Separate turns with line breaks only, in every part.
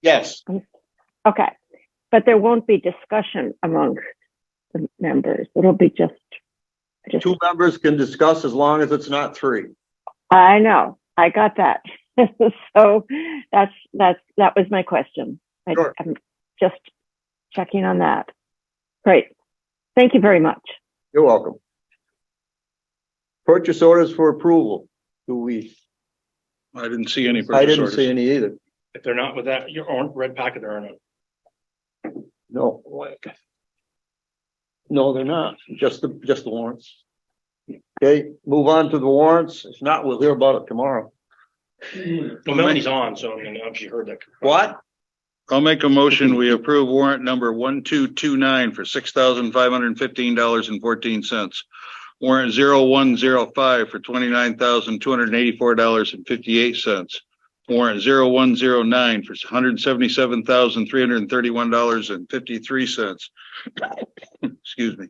Yes,
Okay, but there won't be discussion amongst the members. It'll be just, just,
two members can discuss as long as it's not three.
I know, I got that. So that's, that's, that was my question. I-
Sure.
I'm just checking on that. Great. Thank you very much.
You're welcome. Purchase orders for approval. Do we,
I didn't see any
I
purchase
didn't see
orders.
any either.
If they're not with that, your own red packet, there are no.
No. No, they're not. Just the, just the warrants. Okay, move on to the warrants. If not, we'll hear about it tomorrow.
Well, Melanie's on, so I mean, she heard that.
What?
I'll make a motion. We approve warrant number one, two, two, nine for six thousand five hundred and fifteen dollars and fourteen cents. Warrant zero, one, zero, five for twenty-nine thousand two hundred and eighty-four dollars and fifty-eight cents. Warrant zero, one, zero, nine for hundred and seventy-seven thousand three hundred and thirty-one dollars and fifty-three cents. Excuse me.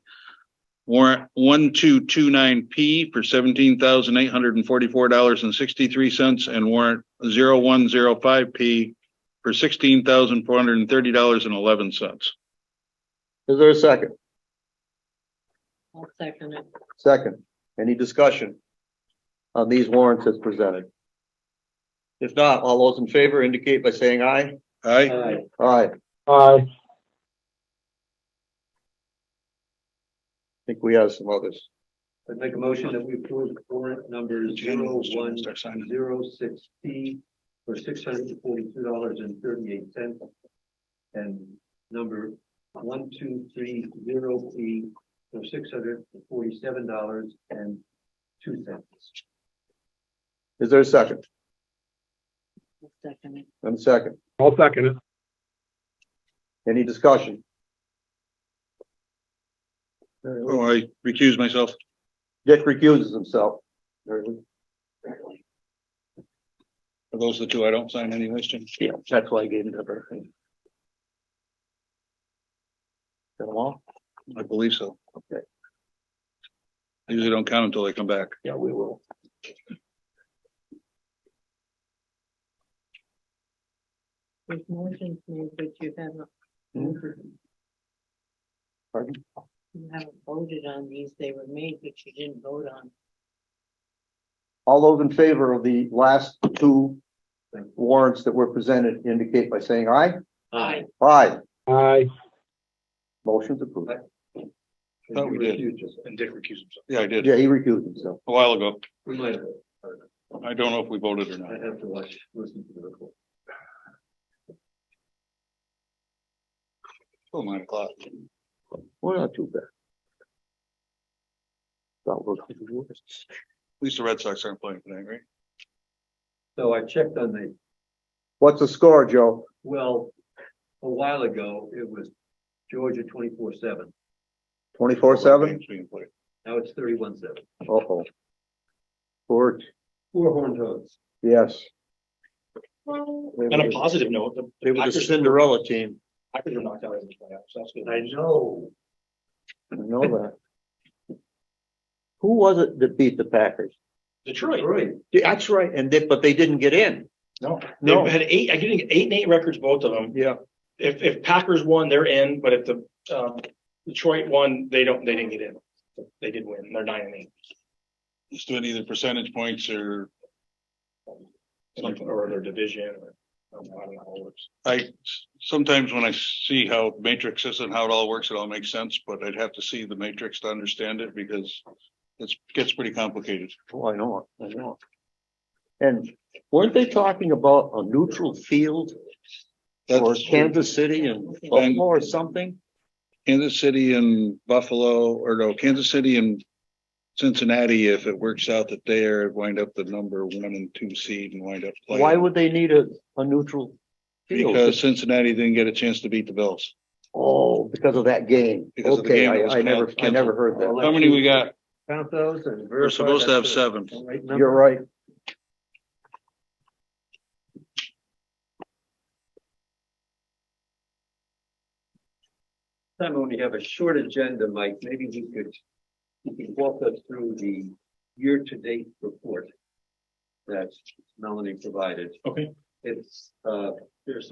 Warrant one, two, two, nine P for seventeen thousand eight hundred and forty-four dollars and sixty-three cents and warrant zero, one, zero, five P for sixteen thousand four hundred and thirty dollars and eleven cents.
Is there a second?
I'll second it.
Second, any discussion on these warrants as presented? If not, all those in favor indicate by saying aye.
Aye,
Aye.
Aye.
I think we have some others.
I'd make a motion that we approve warrant number zero one zero six P for six hundred and forty-two dollars and thirty-eight cents. And number one two three zero P for six hundred and forty-seven dollars and two cents.
Is there a second?
I'll second it.
And a second,
I'll second it.
any discussion?
oh, I recuse myself.
Dick recuses himself. Very good.
Are those the two I don't sign anyways, Jim?
Yeah, that's why I gave it to her. Got them all?
I believe so.
Okay.
I usually don't count until they come back.
Yeah, we will.
There's motions made, but you haven't,
Pardon?
you haven't voted on these. They were made, but you didn't vote on.
All those in favor of the last two warrants that were presented indicate by saying aye.
Aye.
Aye,
Aye.
motion's approved.
Thought we did.
And Dick recused himself.
Yeah, I did,
Yeah, he recused himself.
a while ago.
We might,
I don't know if we voted or
I'd
not.
have to watch, listen to the report.
Till Oh, nine o'clock.
Well, not too bad. Thought we were-
At least the Red Sox aren't playing tonight, right?
So I checked on the
What's the score, Joe?
Well, a while ago, it was Georgia twenty-four seven.
Twenty-four seven?
Games being played.
Now it's thirty-one seven.
Uh-oh. Court,
Four horned hogs.
yes.
On a positive note, the- the
They were the
Packers,
Cinderella team.
Packers are knocked out in the playoffs. That's good.
I know.
I know that. Who was it that beat the Packers?
Detroit,
Right.
That's right, and they, but they didn't get in.
no,
No.
they had eight, I think eight and eight records, both of them.
Yeah.
If, if Packers won, they're in, but if the, um, Detroit won, they don't, they didn't get in. They did win. They're nine and eight.
Just doing either percentage points or
Something or their division or. I don't know how it works.
I, sometimes when I see how matrix is and how it all works, it all makes sense, but I'd have to see the matrix to understand it because it's, gets pretty complicated.
Oh, I know, it, I know. it. And weren't they talking about a neutral field or
That's
Kansas City and Buffalo or something?
Kansas City and Buffalo, or no, Kansas City and Cincinnati, if it works out that they are wind up the number one and two seed and wind up
Why
playing.
would they need a, a neutral? field?
Because Cincinnati didn't get a chance to beat the Bills.
Oh, because of that game.
Because of the
Okay,
game that
I,
was
I never, I
canceled.
never heard that.
How many we got?
Count those and.
We're supposed to have seven.
You're right.
Time when we have a short agenda, Mike, maybe you could, you could walk us through the year-to-date report that Melanie provided.
Okay.
It's, uh, there's some